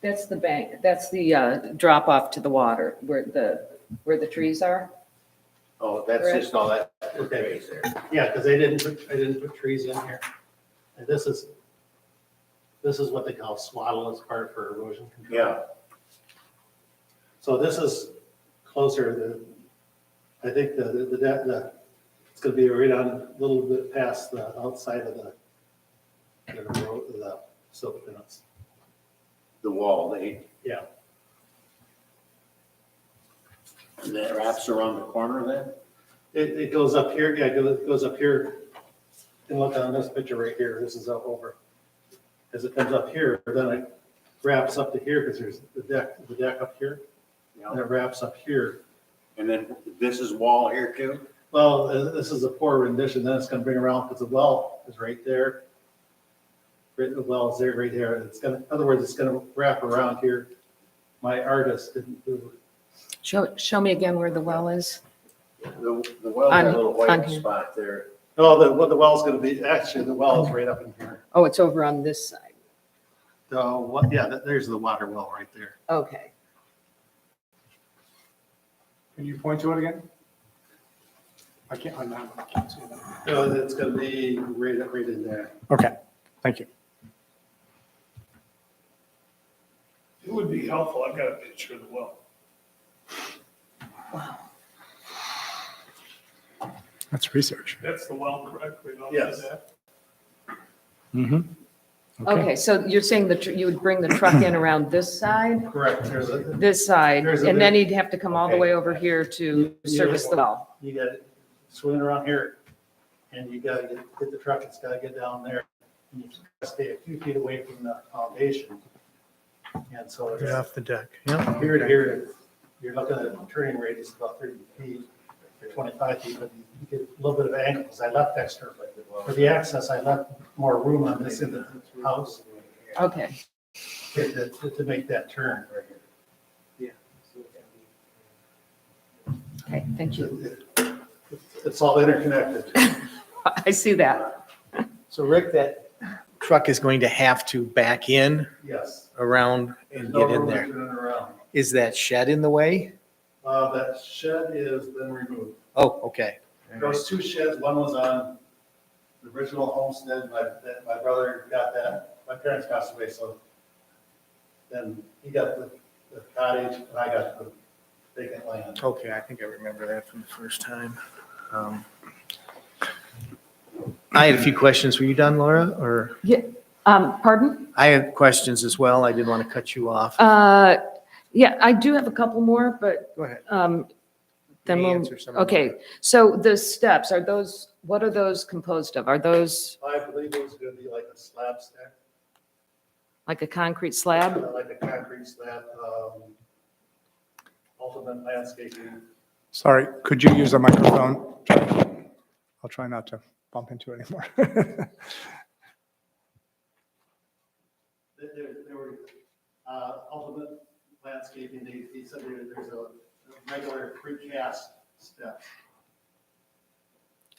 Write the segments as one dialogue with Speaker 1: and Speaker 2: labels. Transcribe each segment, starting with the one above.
Speaker 1: That's the bank, that's the uh, drop off to the water where the, where the trees are.
Speaker 2: Oh, that's
Speaker 1: Correct.
Speaker 2: just all that.
Speaker 3: Okay.
Speaker 2: raised there.
Speaker 3: Yeah, because they didn't, put- I didn't put trees in here. And this is, this is what they call swaddle as part for erosion control.
Speaker 2: Yeah.
Speaker 3: So this is closer to, I think the, the, the- the, it's gonna be right on a little bit past the outside of the, the road, the silk fence.
Speaker 2: The wall, they,
Speaker 3: Yeah,
Speaker 2: and that wraps around the corner then?
Speaker 3: it, it goes up here, yeah, it goes, it goes up here. And look on this picture right here, this is up over. As it comes up here, then it wraps up to here, because there's the deck, the deck up here, and
Speaker 2: Yeah.
Speaker 3: it wraps up here.
Speaker 2: And then this is wall here too?
Speaker 3: Well, uh, this is a poor rendition, then it's gonna bring around, because the well is right there. Right, the well is there, right there, and it's gonna, in other words, it's gonna wrap around here. My artist didn't do,
Speaker 1: Show, show me again where the well is.
Speaker 2: The, the well's got a
Speaker 1: On-
Speaker 2: little
Speaker 1: on
Speaker 2: white
Speaker 1: here.
Speaker 2: spot there.
Speaker 3: no, the, what the well's gonna be, actually, the well is right up in here.
Speaker 1: Oh, it's over on this side.
Speaker 3: So, what, yeah, that- there's the water well right there.
Speaker 1: Okay.
Speaker 4: Can you point to it again? I can't, on that one, I can't see that.
Speaker 3: No, it's Oh, gonna be right, up- right in there.
Speaker 4: Okay, thank you.
Speaker 5: It would be helpful, I've got a picture of the well.
Speaker 4: That's research.
Speaker 5: That's the well correctly, not
Speaker 3: Yes.
Speaker 5: that.
Speaker 4: Mm-hmm.
Speaker 1: Okay, so you're saying that you would bring the truck in around this side,
Speaker 3: Correct, there's a,
Speaker 1: this side,
Speaker 3: There's a-
Speaker 1: and then he'd have to come all the
Speaker 3: Okay.
Speaker 1: way over here to
Speaker 3: Yeah.
Speaker 1: service the well.
Speaker 3: you got it swimming around here, and you gotta get, get the truck, it's gotta get down there. and You just gotta stay a few feet away from the foundation. And so it's
Speaker 4: off the deck, yeah.
Speaker 3: here to here, you're looking at a turning radius of about thirty feet, or twenty-five feet, but you get a little bit of angle, because I left extra, but for the access, I left more room on this end of the house
Speaker 1: Okay,
Speaker 3: to, to- to make that turn.
Speaker 1: okay, thank you.
Speaker 3: It's all interconnected.
Speaker 1: I see that.
Speaker 6: So Rick, that truck is going to have to back in
Speaker 3: Yes.
Speaker 6: around
Speaker 3: There's
Speaker 6: and
Speaker 3: no
Speaker 6: get
Speaker 3: room
Speaker 6: in
Speaker 3: to
Speaker 6: there.
Speaker 3: turn it around.
Speaker 6: Is that shed in the way?
Speaker 3: Uh, that shed is been removed.
Speaker 6: Oh, okay.
Speaker 3: There was two sheds, one was on the original homestead, my, that, my brother got that, my parents passed away, so then he got the, the cottage, and I got the vacant land.
Speaker 6: Okay, I think I remember that from the first time. Um, I had a few questions. Were you done, Laura? Or
Speaker 1: Um, pardon?
Speaker 6: I had questions as well. I didn't want to cut you off.
Speaker 1: Uh, Yeah, I do have a couple more, but
Speaker 6: Go ahead.
Speaker 1: um, then
Speaker 6: You may
Speaker 1: we'll,
Speaker 6: answer some of them.
Speaker 1: okay. So the steps, are those, what are those composed of? Are those
Speaker 3: I believe it was gonna be like a slab stack,
Speaker 1: like a concrete slab?
Speaker 3: like a concrete slab, um, ultimate landscaping.
Speaker 4: Sorry, could you use a microphone? I'll try not to bump into it anymore.
Speaker 3: There, there- there were, uh, ultimate landscaping, they, they said there- there's a a regular precast step.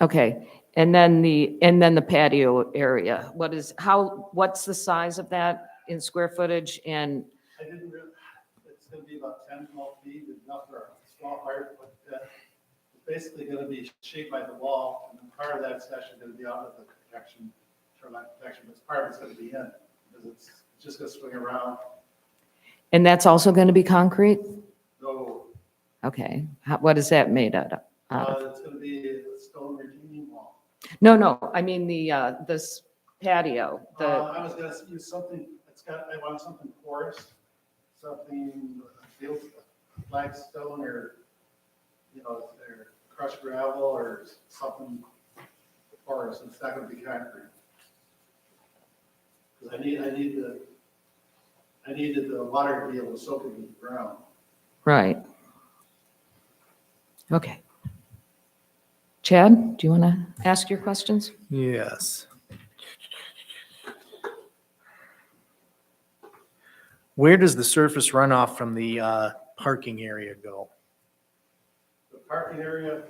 Speaker 1: Okay, and then the, and then the patio area, what is, how, what's the size of that in square footage? And,
Speaker 3: I didn't really, it's gonna be about 10, 12 feet, enough for a small part, but uh, it's basically gonna be shaped by the wall, and then part of that's actually gonna be out of the protection, shoreline protection, but part of it's gonna be in, because it's just gonna swing around,
Speaker 1: and that's also going to be concrete?
Speaker 3: though,
Speaker 1: Okay, How- what is that made out of? out of?
Speaker 3: uh, it's gonna be a stone retaining wall.
Speaker 1: No, no, I mean the, uh, this patio,
Speaker 3: Uh,
Speaker 1: the,
Speaker 3: I was gonna use something, it's got, I want something porous, something, field, flagstone or, you know, or crushed gravel or something porous, it's not gonna be concrete. Cause I need, I need the, I needed the water to be able to soak into the ground.
Speaker 1: Right. Okay. Chad, do you want to ask your questions?
Speaker 6: Yes. Where does the surface runoff from the uh, parking area go?
Speaker 3: The parking area